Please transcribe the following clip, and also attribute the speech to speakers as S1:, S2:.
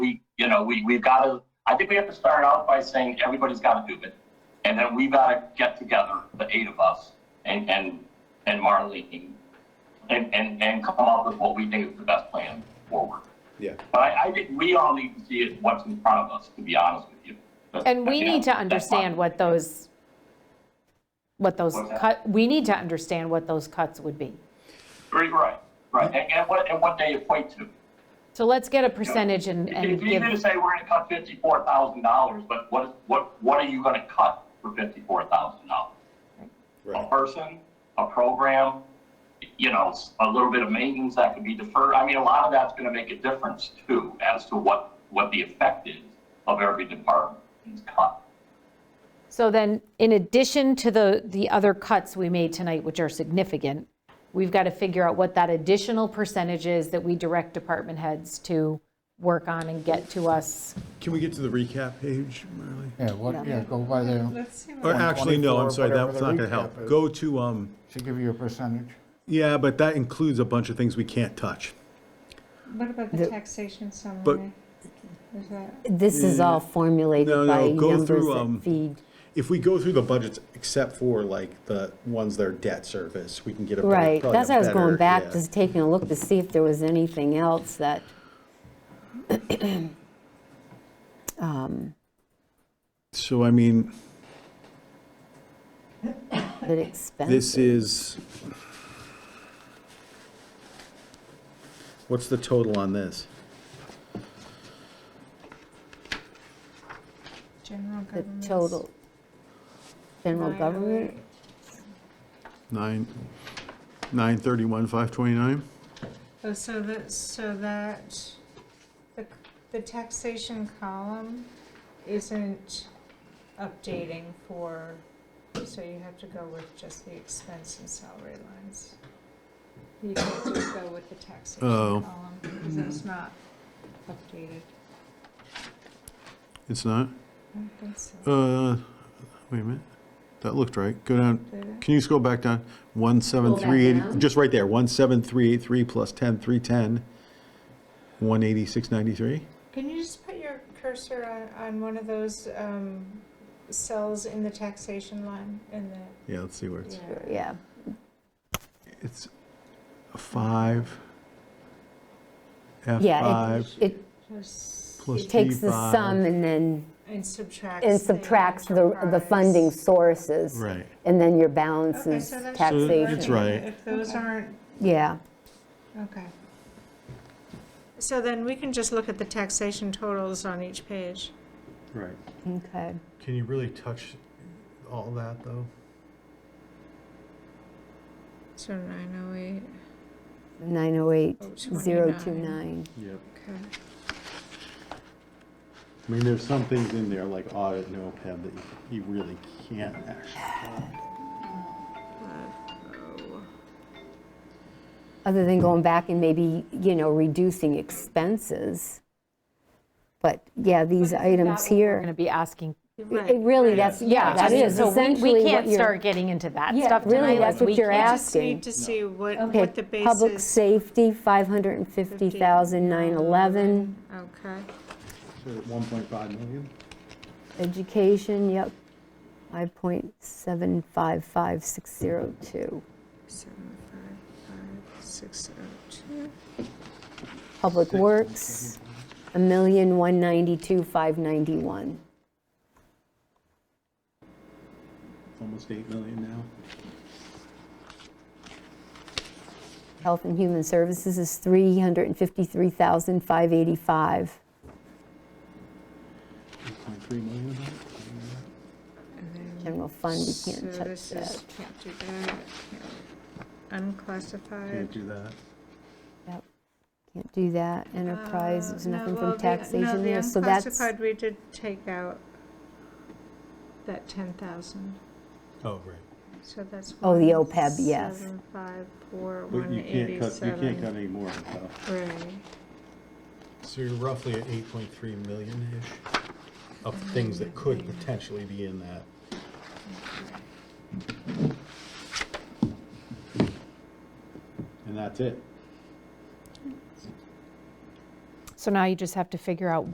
S1: we, you know, we, we've got to, I think we have to start out by saying everybody's got to do it. And then we've got to get together, the eight of us and, and, and Marlene, and, and, and come up with what we think is the best plan forward.
S2: Yeah.
S1: But I, I think we all need to see it, what's in front of us, to be honest with you. But,
S3: And we
S1: you know,
S3: need to
S1: that's my-
S3: understand what those, what those
S1: What's that?
S3: cut, we need to understand what those cuts would be.
S1: Right, right, right. And, and what, and what they equate to.
S3: So let's get a percentage and, and
S1: It's easy
S3: give,
S1: to say we're gonna cut fifty-four thousand dollars, but what, what, what are you gonna cut for fifty-four thousand dollars? a
S2: Right.
S1: person, a program, you know, s- a little bit of maintenance that could be deferred. I mean, a lot of that's gonna make a difference too, as to what, what the effect is of every department's cut.
S3: so then, in addition to the, the other cuts we made tonight, which are significant, we've got to figure out what that additional percentage is that we direct department heads to work on and get to us.
S2: Can we get to the recap page, Marley?
S4: Yeah, what, yeah, go by there,
S5: Let's see.
S2: Or
S5: what-
S2: actually, no, I'm sorry, that's not gonna
S4: whatever the recap
S2: help.
S4: is.
S2: Go to, um,
S4: should give you a percentage.
S2: yeah, but that includes a bunch of things we can't touch.
S5: What about the taxation summary? Is that,
S6: This is
S2: No,
S6: all formulated by
S2: Mm. no, go
S6: numbers
S2: through, um,
S6: that feed,
S2: If we go through the budgets, except for like the ones that are debt service, we can get a. better-
S6: right,
S2: probably
S6: that's
S2: a
S6: why I was
S2: better-
S6: going back,
S2: yeah.
S6: just taking a look to see if there was anything else that,
S2: So I mean,
S6: that expense.
S2: this is. What's the total on this?
S5: general
S6: The
S5: government?
S6: total, general government,
S2: Nine, nine thirty-one, five twenty-nine?
S5: Oh, so that, so that, the, the taxation column isn't updating for, so you have to go with just the expense and salary lines. You can't just go with the taxation
S2: Oh.
S5: column, because it's not updated.
S2: It's not?
S5: I don't think so.
S2: Uh, wait a minute. That looked right. Go down. Can you scroll back down? One seven
S6: Scroll back
S2: three eight.
S6: down.
S2: Just right there. One seven three eight three plus ten three ten. One eighty six ninety three.
S5: Can you just put your cursor on, on one of those um, cells in the taxation line in the?
S2: Yeah, let's see where it's.
S6: yeah,
S2: It's a five. F
S6: yeah,
S2: five
S6: it- it
S5: Just-
S2: plus
S6: takes the
S2: P5.
S6: sum and then,
S5: And subtracts.
S6: and
S5: the
S6: subtracts the, the funding
S5: enterprise.
S6: sources.
S2: Right.
S6: And then your balance
S5: Okay,
S6: is
S5: so that should
S2: So
S5: work.
S2: it's
S6: taxation,
S2: right.
S5: If those aren't,
S6: yeah.
S5: okay. So then we can just look at the taxation totals on each page.
S2: Right.
S6: Okay.
S2: Can you really touch all that though?
S5: So nine oh eight, Oh,
S6: 908,029.
S2: Yep.
S5: okay.
S2: I mean, there's some things in there like audit and OPEB that you really can't actually.
S6: Other than going back and maybe, you know, reducing expenses. But yeah, these items
S3: We're going
S6: here,
S3: to be asking,
S6: it really, that's, yeah, that is
S3: so we-
S6: essentially
S3: we
S6: what
S3: can't
S6: you're.
S3: start getting into that
S6: Yeah,
S3: stuff
S6: really,
S3: tonight.
S6: that's
S3: like,
S6: what
S3: we
S6: you're
S3: can't-
S5: I just
S6: asking.
S5: need to see what,
S6: Okay,
S5: what the basis.
S6: Public safety, 550,911.
S5: Okay.
S2: One point five million?
S6: Education, yep, 5.755602.
S5: Seven, five, five, six, oh, two.
S6: Public Works, 1,192,591.
S2: Almost eight million now.
S6: Health and Human Services is 353,585.
S2: Eight point three million about?
S6: General fund, we
S5: So
S6: can't touch
S5: this
S6: that.
S5: is, can't do that, can't- unclassified.
S2: Can't do that.
S6: Yep. Can't do that. Enterprise, there's
S5: Uh, no,
S6: nothing
S5: well,
S6: from
S5: the-
S6: taxation there, so
S5: No,
S6: that's,
S5: the unclassified, we did take out that 10,000,
S2: Oh, right.
S5: so that's.
S6: Oh, the OPEB, yes.
S5: 754,
S2: But you can't cut, you can't cut
S5: 187.
S2: any more on top.
S5: Right.
S2: So you're roughly at eight point three million-ish of things that could potentially be in that. And that's it.
S3: So now you just have to figure out